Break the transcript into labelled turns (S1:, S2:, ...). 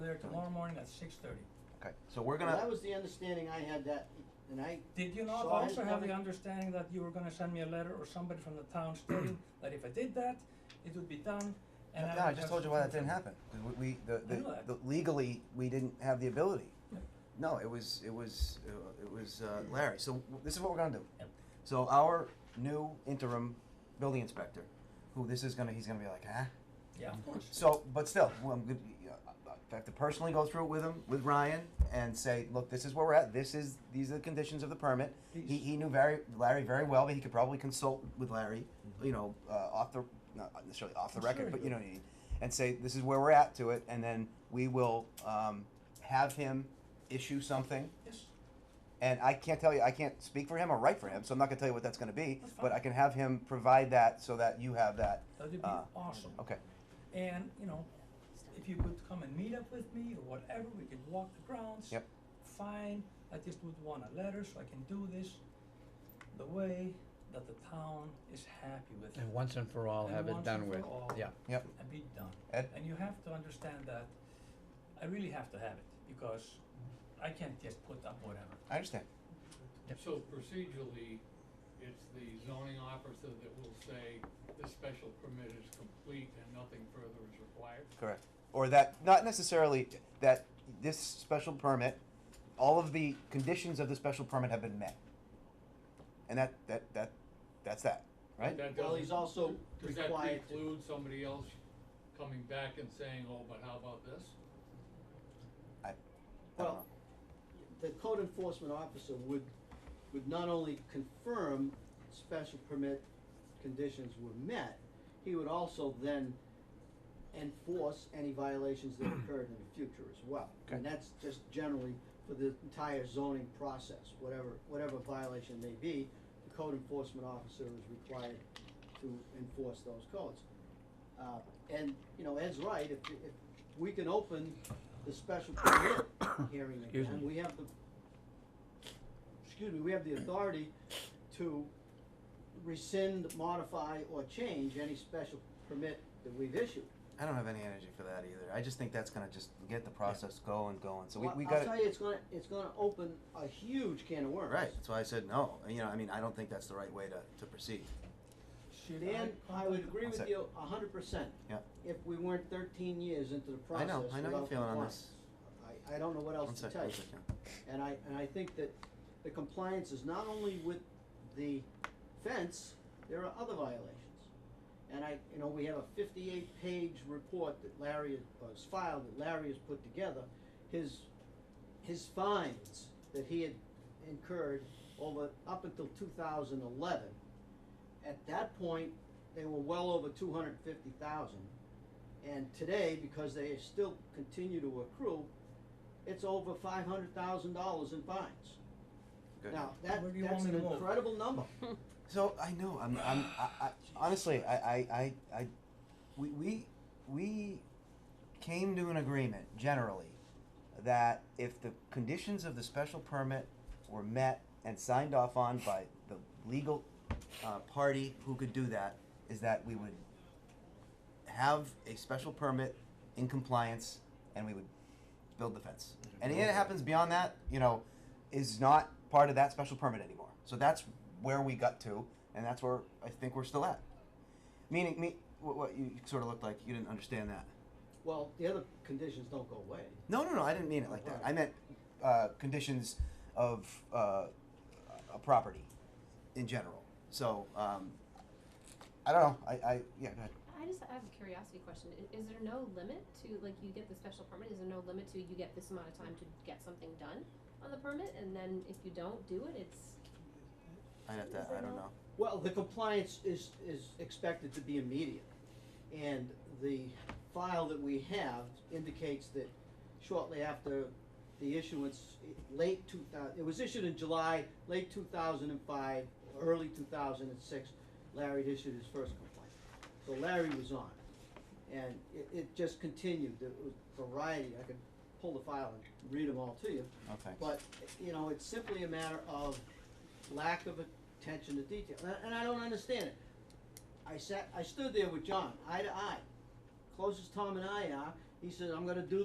S1: there tomorrow morning at six thirty.
S2: Okay, so we're
S3: That
S2: gonna,
S3: was the understanding I had that, and I,
S1: Did you not
S3: So I
S1: also have the
S3: started-
S1: understanding that you were gonna send me a letter or somebody from the town stating that if I did that, it would be done and I
S2: no, I
S1: would
S2: just
S1: have
S2: told you why that
S1: something
S2: didn't
S1: from-
S2: happen. 'Cause We, we- the,
S1: I know
S2: the,
S1: that.
S2: the- legally, we didn't have the ability.
S1: Yeah.
S2: No, it was, it was, uh, it was uh, Larry, so w- this is what we're gonna do.
S1: Yep.
S2: So our new interim building inspector, who this is gonna, he's gonna be like, huh?
S1: Yeah, of course.
S2: So, but still, well, I'm good, uh, I have to personally go through it with him, with Ryan, and say, look, this is where we're at, this is, these are the conditions of the permit. He, he knew very, Larry very well, but he could probably consult with Larry, you know, uh, off the, not necessarily off the
S1: Mm-hmm. I'm sure
S2: record,
S1: he
S2: but
S1: would.
S2: you know what I mean? And say, this is where we're at to it, and then we will, um, have him issue something.
S1: Yes,
S2: And I can't tell you, I can't speak for him or write for him, so I'm not gonna tell you what that's gonna be,
S1: That's
S2: but
S1: fine.
S2: I can have him provide that so that you have that,
S1: that would be
S2: Uh,
S1: awesome.
S2: okay.
S1: And, you know, if you could come and meet up with me or whatever, we can walk the grounds.
S2: Yep.
S1: Fine, I just would want a letter so I can do this the way that the town is happy with it
S4: And once and for all,
S1: And
S4: have it
S1: once
S4: done
S1: and for
S4: with,
S1: all.
S4: yeah.
S2: Yep.
S1: and be done.
S2: Ed?
S1: And you have to understand that I really have to have it because I can't just put up whatever.
S2: I understand.
S4: Yep.
S5: So procedurally, it's the zoning officer that will say the special permit is complete and nothing further is required?
S2: Correct. Or that, not necessarily that this special permit, all of the conditions of the special permit have been met. And that, that, that, that's that, right?
S5: That
S3: well, he's
S5: doesn't-
S3: also
S5: Does that
S3: required to.
S5: preclude somebody else coming back and saying, oh, but how about this?
S2: I, I don't know.
S3: Well, the code enforcement officer would, would not only confirm special permit conditions were met, he would also then enforce any violations that occurred in the future as well.
S2: Okay.
S3: And that's just generally for the entire zoning process, whatever, whatever violation may be, the code enforcement officer is required to enforce those codes. Uh, and, you know, Ed's right, if, if we can open the special permit hearing
S4: Excuse
S3: again,
S4: me.
S3: we have the, excuse me, we have the authority to rescind, modify, or change any special permit that we've issued.
S2: I don't have any energy for that either. I just think that's gonna just get the process going, going, so we,
S3: Well,
S2: we gotta.
S3: I'll tell you, it's gonna, it's gonna open a huge can of worms.
S2: Right, that's why I said no. You know, I mean, I don't think that's the right way to, to proceed.
S1: Should I
S3: Dan, I would agree
S2: That's
S3: with
S2: it.
S3: you a hundred percent.
S2: Yeah.
S3: If we weren't thirteen years into the
S2: I
S3: process
S2: know, I know your
S3: without
S2: feeling on
S3: compliance.
S2: this.
S3: I, I don't know what
S2: One
S3: else to
S2: sec,
S3: tell you.
S2: one sec, yeah.
S3: And I, and I think that the compliance is not only with the fence, there are other violations. And I, you know, we have a fifty-eight page report that Larry has filed, that Larry has put together. His, his fines that he had incurred over, up until two thousand eleven. At that point, they were well over two hundred and fifty thousand. And today, because they still continue to accrue, it's over five hundred thousand dollars in fines.
S2: Good.
S3: Now, that,
S1: Where do you
S3: that's
S1: want me
S3: an
S1: to move?
S3: incredible number.
S2: So I know I'm I'm I, I honestly I, I, I, I we, we we came to an agreement generally that if the conditions of the special permit were met and signed off on by the legal uh, party who could do that is that we would have a special permit in compliance and we would build the fence. Anything that happens beyond that, you know, is not part of that special permit anymore. So that's where we got to, and that's where I think we're still at. Meaning, me, what, what you sort of looked like, you didn't understand that.
S3: Well, the other conditions don't go away.
S2: No, no, no, I didn't mean it like that. I meant uh, conditions of uh, a property in general. So, um, I don't know. I, I yeah, go ahead.
S6: I just have a curiosity question. I- Is there no limit to, like, you get the special permit, is there no limit to you get this amount of time to get something done on the permit, and then if you don't do it, it's,
S2: I have to, I don't know.
S3: Well, the compliance is, is expected to be immediate. And the file that we have indicates that shortly after the issuance, i- late two thousand, it was issued in July, late two thousand and five, early two thousand and six, Larry had issued his first complaint. So Larry was on it. And it, it just continued, there was variety, I could pull the file and read them all to you.
S2: No thanks.
S3: But, you know, it's simply a matter of lack of attention to detail, and, and I don't understand it. I sat, I stood there with John, eye to eye, close as Tom and I are, he says, I'm gonna do